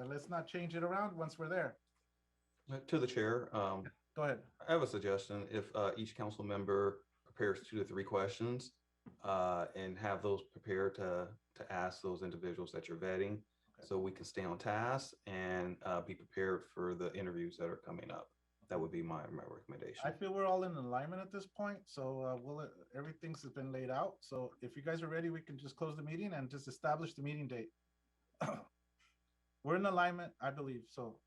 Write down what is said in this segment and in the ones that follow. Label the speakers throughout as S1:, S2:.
S1: uh, Let's not change it around once we're there.
S2: Uh, To the chair, um,
S1: Go ahead.
S2: I have a suggestion. If uh, each council member prepares two to three questions uh, and have those prepared to, to ask those individuals that you're vetting,
S1: Okay.
S2: so we can stay on task and uh, be prepared for the interviews that are coming up. That would be my, my
S1: I
S2: recommendation.
S1: feel we're all in alignment at this point, so uh, we'll, everything's been laid out. So if you guys are ready, we can just close the meeting and just establish the meeting date. We're in alignment, I believe, so.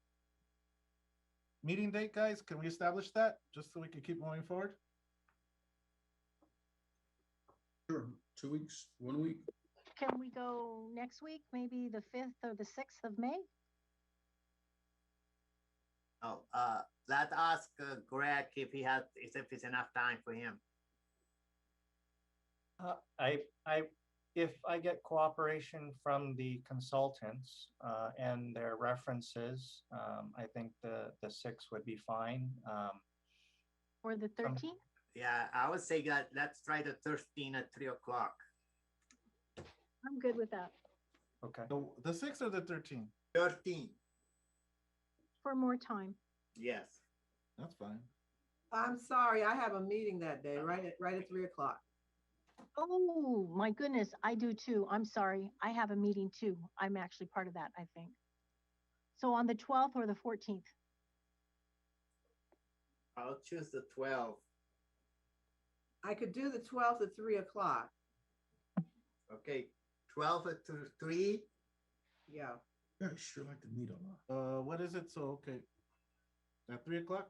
S1: Meeting date, guys, can we establish that, just so we can keep moving forward?
S3: Sure, two weeks, one week.
S4: Can we go next week, maybe the fifth or the sixth of May?
S5: Oh, uh, let's ask uh, Greg if he has, if it's enough time for him.
S6: Uh, I, I, if I get cooperation from the consultants, uh, and their references, um, I think the, the six would be fine. Um,
S4: Or the thirteenth?
S5: Yeah, I would say that let's try the thirteen at three o'clock.
S4: I'm good with that.
S6: okay,
S1: The, the sixth or the thirteenth?
S5: Thirteen,
S4: For more time.
S5: yes.
S1: That's fine.
S7: I'm sorry, I have a meeting that day, right at, right at three o'clock.
S4: Oh, my goodness, I do too. I'm sorry. I have a meeting too. I'm actually part of that, I think. So on the twelfth or the fourteenth,
S5: I'll choose the twelve,
S7: I could do the twelfth at three o'clock,
S5: okay? Twelve at th- three,
S7: yeah.
S3: Yeah, I sure like to meet a lot.
S1: Uh, what is it? So, okay. At three o'clock?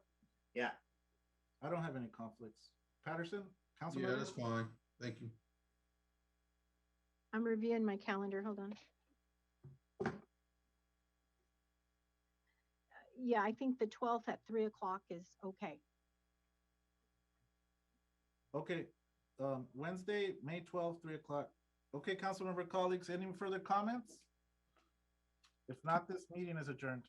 S5: Yeah.
S1: I don't have any conflicts. Patterson, council
S3: Yeah,
S1: member?
S3: that's fine. Thank you.
S4: I'm reviewing my calendar. Hold on. Yeah, I think the twelfth at three o'clock is okay.
S1: Okay, um, Wednesday, May twelfth, three o'clock. Okay, councilmember colleagues, any further comments? If not, this meeting is adjourned.